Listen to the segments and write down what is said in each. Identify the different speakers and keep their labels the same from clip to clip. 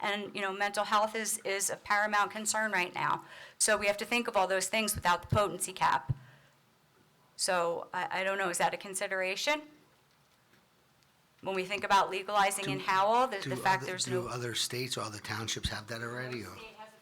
Speaker 1: And, you know, mental health is, is a paramount concern right now. So we have to think of all those things without the potency cap. So I, I don't know, is that a consideration? When we think about legalizing in Howell, the,
Speaker 2: Do
Speaker 1: the fact
Speaker 2: other-
Speaker 1: there's
Speaker 2: Do
Speaker 1: no
Speaker 2: other states or other townships have that already, or?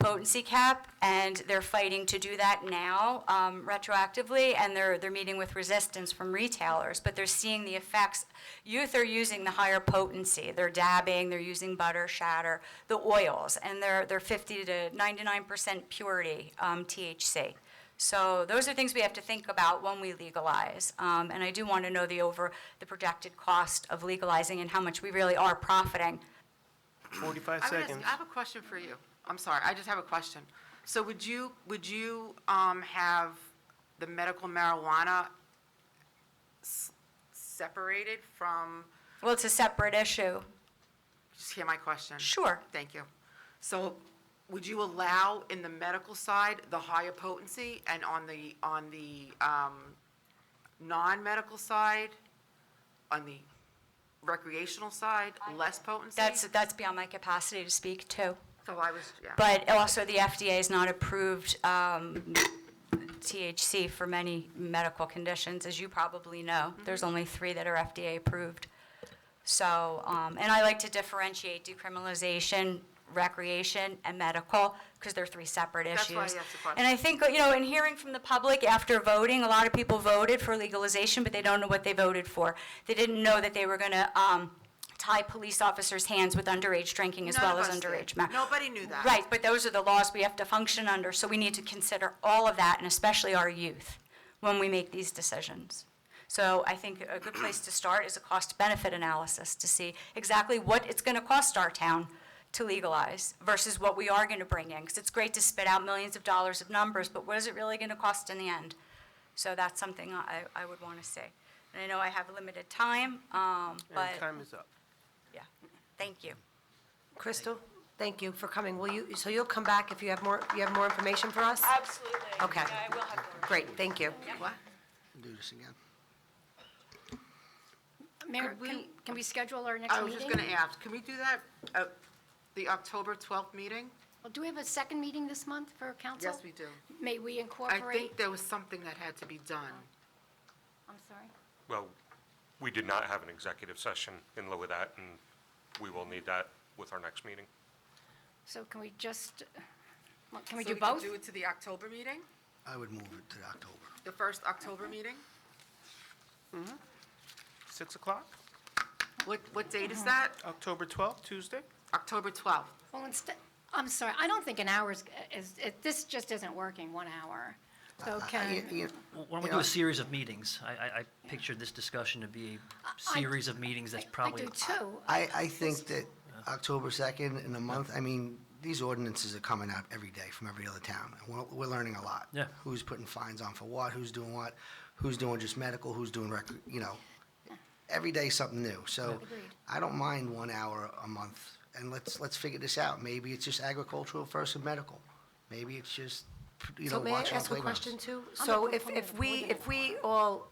Speaker 1: potency cap, and they're fighting to do that now um, retroactively, and they're, they're meeting with resistance from retailers, but they're seeing the effects. Youth are using the higher potency. They're dabbing, they're using butter, shatter, the oils, and they're, they're 50 to 99% purity um, THC. So those are things we have to think about when we legalize. Um, And I do want to know the over, the projected cost of legalizing and how much we really are profiting
Speaker 3: 45
Speaker 4: I'm gonna ask-
Speaker 3: seconds.
Speaker 4: I have a question for you. I'm sorry, I just have a question. So would you, would you um, have the medical marijuana s- separated from,
Speaker 1: Well, it's a separate issue.
Speaker 4: just hear my question?
Speaker 1: Sure.
Speaker 4: Thank you. So would you allow in the medical side the higher potency and on the, on the um, non-medical side, on the recreational side, less potency?
Speaker 1: That's, that's beyond my capacity to speak to.
Speaker 4: So I was, yeah.
Speaker 1: But also, the FDA has not approved um, THC for many medical conditions, as you probably know.
Speaker 4: Mm-hmm.
Speaker 1: There's only three that are FDA-approved. So, um, and I like to differentiate decriminalization, recreation, and medical, because they're three separate issues.
Speaker 4: That's why I asked the question.
Speaker 1: And I think, you know, in hearing from the public after voting, a lot of people voted for legalization, but they don't know what they voted for. They didn't know that they were going to tie police officers' hands with underage drinking as
Speaker 4: None
Speaker 1: well
Speaker 4: of
Speaker 1: as
Speaker 4: us did.
Speaker 1: underage ma-
Speaker 4: Nobody knew that.
Speaker 1: Right, but those are the laws we have to function under, so we need to consider all of that, and especially our youth, when we make these decisions. So I think a good place to start is a cost-benefit analysis to see exactly what it's going to cost our town to legalize versus what we are going to bring in, because it's great to spit out millions of dollars of numbers, but what is it really going to cost in the end? So that's something I, I would want to see. And I know I have limited time, um, but,
Speaker 3: And time is up.
Speaker 1: yeah, thank you.
Speaker 5: Crystal, thank you for coming. Will you, so you'll come back if you have more, you have more information for us?
Speaker 6: Absolutely.
Speaker 5: Okay.
Speaker 6: Yeah, I will have more.
Speaker 5: Great, thank you.
Speaker 4: What?
Speaker 2: Do this again?
Speaker 7: Mayor,
Speaker 4: Could
Speaker 7: can,
Speaker 4: we-
Speaker 7: can we schedule our next
Speaker 4: I was
Speaker 7: meeting?
Speaker 4: just going to ask, can we do that, uh, the October 12th meeting?
Speaker 7: Well, Do we have a second meeting this month for council?
Speaker 4: Yes, we do.
Speaker 7: May we
Speaker 4: I
Speaker 7: incorporate,
Speaker 4: think there was something that had to be done.
Speaker 7: I'm sorry,
Speaker 8: Well, we did not have an executive session in lieu of that, and we will need that with our next meeting.
Speaker 7: so can we just, well, can we
Speaker 4: So
Speaker 7: do both?
Speaker 4: do it to the October meeting,
Speaker 2: I would move it to October.
Speaker 4: the first October meeting?
Speaker 3: 6 o'clock,
Speaker 4: What, what date
Speaker 7: Mm-hmm.
Speaker 4: is that?
Speaker 3: October 12th, Tuesday?
Speaker 4: October 12th.
Speaker 7: Well, instead, I'm sorry, I don't think an hour is, is, it- this just isn't working, one hour.
Speaker 9: Uh,
Speaker 7: So
Speaker 2: I-
Speaker 7: can,
Speaker 2: you-
Speaker 9: Why don't we do a series of meetings? I, I, I pictured this discussion to be a series of meetings that's
Speaker 7: I
Speaker 9: probably.
Speaker 7: do too.
Speaker 2: I, I think that October 2nd in a month, I mean, these ordinances are coming out every day from every other town. And we're, we're learning a lot.
Speaker 9: Yeah.
Speaker 2: Who's putting fines on for what, who's doing what, who's doing just medical, who's doing rec, you know. Every day something new. So I don't mind one hour a month. And let's, let's figure this out. Maybe it's just agricultural versus medical. Maybe it's just, you know,
Speaker 5: So may I
Speaker 2: watching
Speaker 5: ask a
Speaker 2: playgrounds.
Speaker 5: question too? So if, if we, if we all,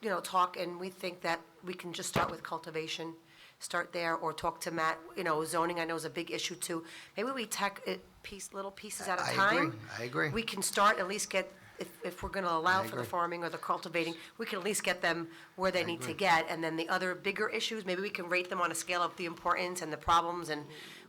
Speaker 5: you know, talk and we think that we can just start with cultivation, start there, or talk to Matt, you know, zoning I know is a big issue too. Maybe we tack it piece, little pieces at a
Speaker 2: I agree,
Speaker 5: time.
Speaker 2: I agree.
Speaker 5: We can start, at least get, if, if we're gonna allow
Speaker 2: I
Speaker 5: for the
Speaker 2: agree.
Speaker 5: farming or the cultivating, we can at least get them where they need to
Speaker 2: agree.
Speaker 5: get. And then the other bigger issues, maybe we can rate them on a scale of the importance and the problems, and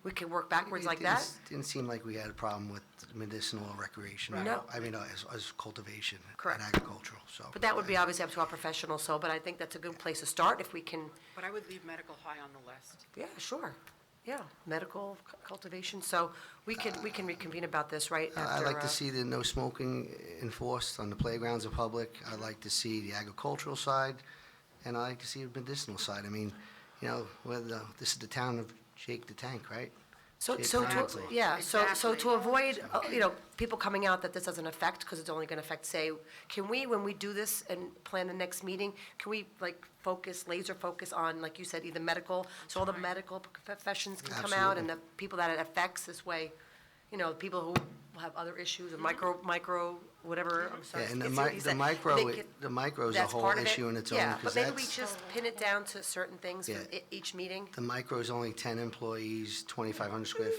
Speaker 5: we can work backwards
Speaker 2: It
Speaker 5: like
Speaker 2: didn't
Speaker 5: that.
Speaker 2: s- Didn't seem like we had a problem with medicinal or recreational.
Speaker 5: No.
Speaker 2: I mean, uh, as, as cultivation.
Speaker 5: Correct.
Speaker 2: And agricultural, so.
Speaker 5: But that would be obviously up to our professionals, so, but I think that's a good place to start if we can,
Speaker 4: But I would leave medical high on the list.
Speaker 5: yeah, sure. Yeah, medical cu- cultivation, so we could, we can reconvene about this right
Speaker 2: I- I'd
Speaker 5: after.
Speaker 2: like to
Speaker 5: uh,
Speaker 2: see the no smoking enforced on the playgrounds of public. I'd like to see the agricultural side, and I'd like to see the medicinal side. I mean, you know, whether, this is the town of Jake the Tank, right?
Speaker 5: So,
Speaker 2: Jake
Speaker 5: so,
Speaker 2: the Tank.
Speaker 5: to- yeah, so, so to
Speaker 4: Exactly.
Speaker 5: avoid, uh, you know, people coming out that this doesn't affect, because it's only gonna affect, say, can we, when we do this and plan the next meeting, can we, like, focus, laser focus on, like you said, either medical, so all the medical professions can come out, and the people that it affects this way, you know, people who have other issues, and micro, micro, whatever, I'm sorry.
Speaker 2: Yeah, and the
Speaker 5: I see what
Speaker 2: mi-
Speaker 5: you
Speaker 2: the
Speaker 5: said.
Speaker 2: micro
Speaker 5: They
Speaker 2: i-
Speaker 5: get-
Speaker 2: the micro is a
Speaker 5: that's
Speaker 2: whole
Speaker 5: part of it.
Speaker 2: issue in its own,
Speaker 5: Yeah,
Speaker 2: 'cause
Speaker 5: but maybe we
Speaker 2: that's-
Speaker 5: just pin it down to certain things for
Speaker 2: Yeah.
Speaker 5: i- each meeting.
Speaker 2: The micro is only 10 employees, 2,500 square